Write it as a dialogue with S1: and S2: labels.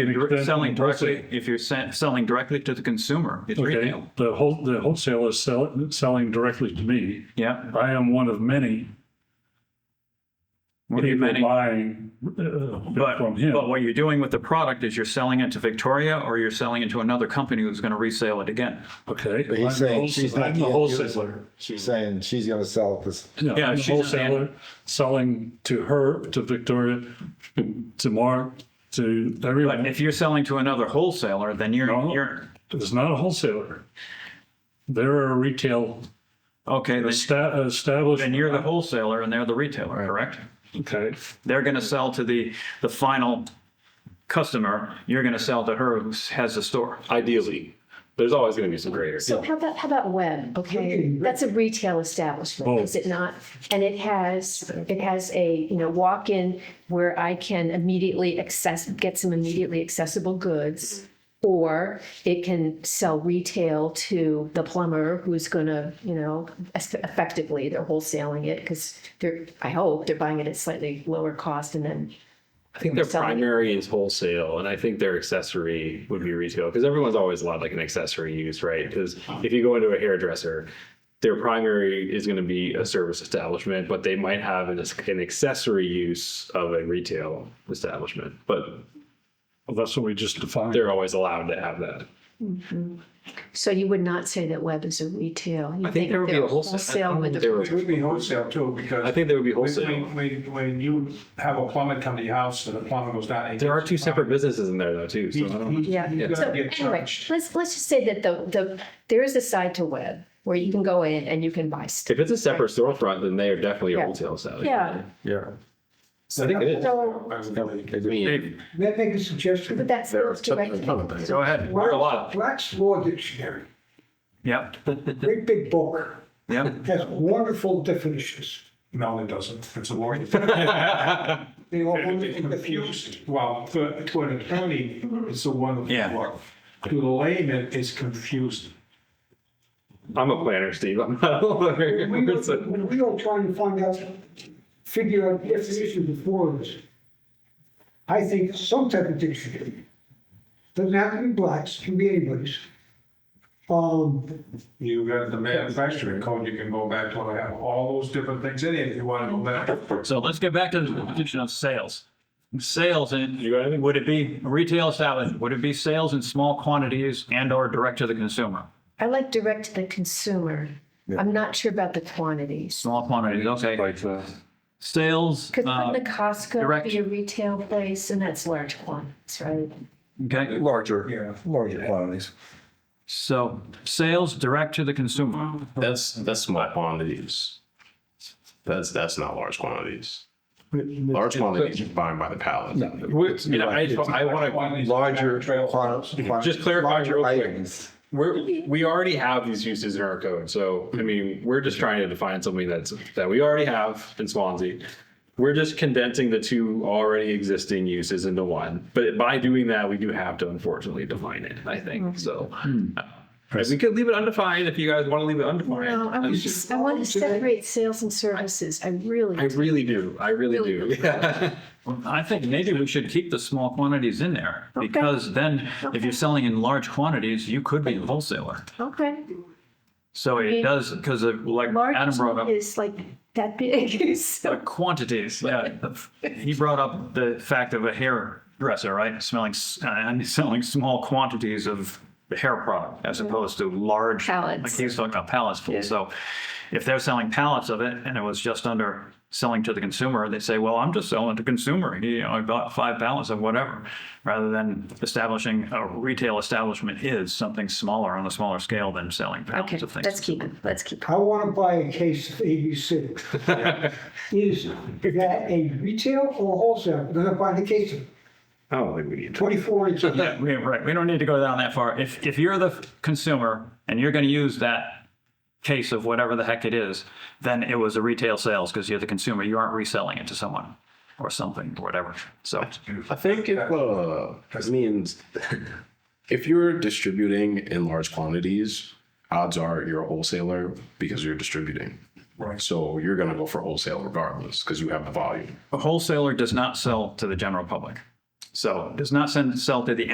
S1: If you're dir-
S2: Then
S1: selling directly,
S2: wholesale.
S1: if you're se- selling directly to the consumer, it's
S2: Okay,
S1: retail.
S2: the whole, the wholesaler is selling, selling directly to me.
S1: Yeah.
S2: I am one of many
S1: What do you
S2: people
S1: mean?
S2: buying uh,
S1: But,
S2: from him.
S1: but what you're doing with the product is you're selling it to Victoria or you're selling it to another company who's going to resell it again.
S2: Okay.
S3: But he's
S2: I'm the
S3: saying
S2: wholes-
S3: she's not
S2: I'm the
S3: gonna use it.
S2: wholesaler.
S3: She's saying she's gonna sell it this,
S2: Yeah,
S1: Yeah,
S2: I'm the
S1: she's not the-
S2: wholesaler, selling to her, to Victoria, to Mark, to
S1: But
S2: everyone.
S1: if you're selling to another wholesaler, then you're,
S2: No.
S1: you're,
S2: It's not a wholesaler. They're a retail
S1: okay, then,
S2: esta- established.
S1: then you're the wholesaler and they're the retailer, correct?
S2: Okay,
S1: They're going to sell to the, the final customer. You're going to sell to her who has the store.
S4: ideally. There's always going to be some graders.
S5: So how about, how about web? Okay, that's a retail establishment, is it not? And it has, it has a, you know, walk-in where I can immediately access, get some immediately accessible goods. Or it can sell retail to the plumber who's gonna, you know, es- effectively, they're wholesaling it because they're, I hope, they're buying it at slightly lower cost and then.
S4: I think their
S5: Selling it.
S4: primary is wholesale, and I think their accessory would be retail because everyone's always allowed like an accessory use, right? Because if you go into a hairdresser, their primary is going to be a service establishment, but they might have an, an accessory use of a retail establishment. But
S2: well, that's what we just defined.
S4: they're always allowed to have that.
S5: So you would not say that web is a retail. You
S4: I think there would be
S5: they're
S4: a wholesale. I
S5: Wholesale
S4: don't
S5: with
S4: think
S5: a
S4: there would-
S6: It would be wholesale too, because.
S4: I think there would be
S6: when-
S4: wholesale.
S6: When, when, when you have a plumber come to your house and the plumber goes down. and
S4: There are two
S6: gets-
S4: separate businesses in there though, too. So
S6: He-
S4: I don't.
S6: he-
S5: Yeah.
S6: he's
S5: So
S6: gonna get
S5: anyway,
S6: charged.
S5: let's, let's just say that the, the, there is a side to web where you can go in and you can buy stuff.
S4: If it's a separate storefront, then they are definitely
S5: Yeah.
S4: a wholesale establishment.
S5: Yeah,
S3: yeah.
S4: I think it is.
S5: so,
S4: I mean,
S7: May I make a suggestion?
S5: but that's
S3: There are
S5: those direct.
S3: some- some things.
S1: Go ahead.
S4: a lot.
S7: Black's Law Dictionary,
S1: Yep.
S7: great big book,
S1: Yep.
S7: has wonderful definitions.
S6: No, it doesn't. It's a lawyer.
S7: They are wonderful definitions.
S6: Confused. Well, to to an attorney, it's a
S1: Yeah.
S6: wonderful work. To the layman, it's confusing.
S4: I'm a planner, Steve. I'm not a lawyer.
S7: When we were-
S4: So-
S7: when we were trying to find out, figure out definitions of words, I think some type of dictionary, doesn't have to be Black's, can be anybody's. Um,
S6: You got the manufacturing code, you can go back to, I have all those different things in it if you want to go back.
S1: So let's get back to the definition of sales. Sales
S4: You got anything?
S1: and would it be retail establishment? Would it be sales in small quantities and or direct to the consumer?
S5: I like direct to the consumer. I'm not sure about the quantities.
S1: Small quantities, okay.
S2: Like that.
S1: Sales,
S5: Could
S1: uh,
S5: the Costco
S1: direct-
S5: be a retail place and that's large quantities, right?
S1: okay.
S6: Yeah.
S3: Larger, larger quantities.
S1: So sales direct to the consumer.
S8: That's that's small quantities. That's that's not large quantities. Large quantities you're buying by the pallet.
S4: We're- you know, I, I want
S3: Larger quantities.
S4: Just clarify real quick.
S3: Items.
S4: to, we're, we already have these uses in our code. So, I mean, we're just trying to define something that's, that we already have in Swansea. We're just condensing the two already existing uses into one. But by doing that, we do have to unfortunately define it, I
S5: Mm-hmm.
S4: think. So
S5: Hmm.
S4: uh, we could leave it undefined if you guys want to leave it undefined.
S5: No, I was just, I want to separate sales and services. I really.
S4: I really do. I really do. Yeah.
S1: I think maybe we should keep the small quantities in there because then if you're selling in large quantities, you could be a wholesaler.
S5: Okay.
S1: So it does, because of like Adam brought up.
S5: Large is like that big, so.
S1: But quantities, yeah. He brought up the fact of a hairdresser, right? Smelling, s- uh, and selling small quantities of hair product
S5: Mm-hmm.
S1: as opposed to large.
S5: Pallets.
S1: Like he was talking about pallets full. So if they're selling pallets of it and it was just under selling to the consumer, they say, well, I'm just selling to consumer. You know, I bought five pallets of whatever. Rather than establishing a retail establishment is something smaller on a smaller scale than selling
S5: Okay,
S1: pallets of things.
S5: let's keep it, let's keep it.
S7: I want to buy a case of ABC. Is that a retail or wholesale? I'm gonna buy the case of
S4: I don't think we need to.
S7: 24 inches.
S1: Yeah, we- right. We don't need to go down that far. If, if you're the f- consumer and you're going to use that case of whatever the heck it is, then it was a retail sales because you're the consumer. You aren't reselling it to someone or something or whatever. So
S8: I think it uh, means if you're distributing in large quantities, odds are you're a wholesaler because you're distributing. Right. So you're gonna go for wholesale regardless because you have the volume.
S1: a wholesaler does not sell to the general public. So does not send, sell to the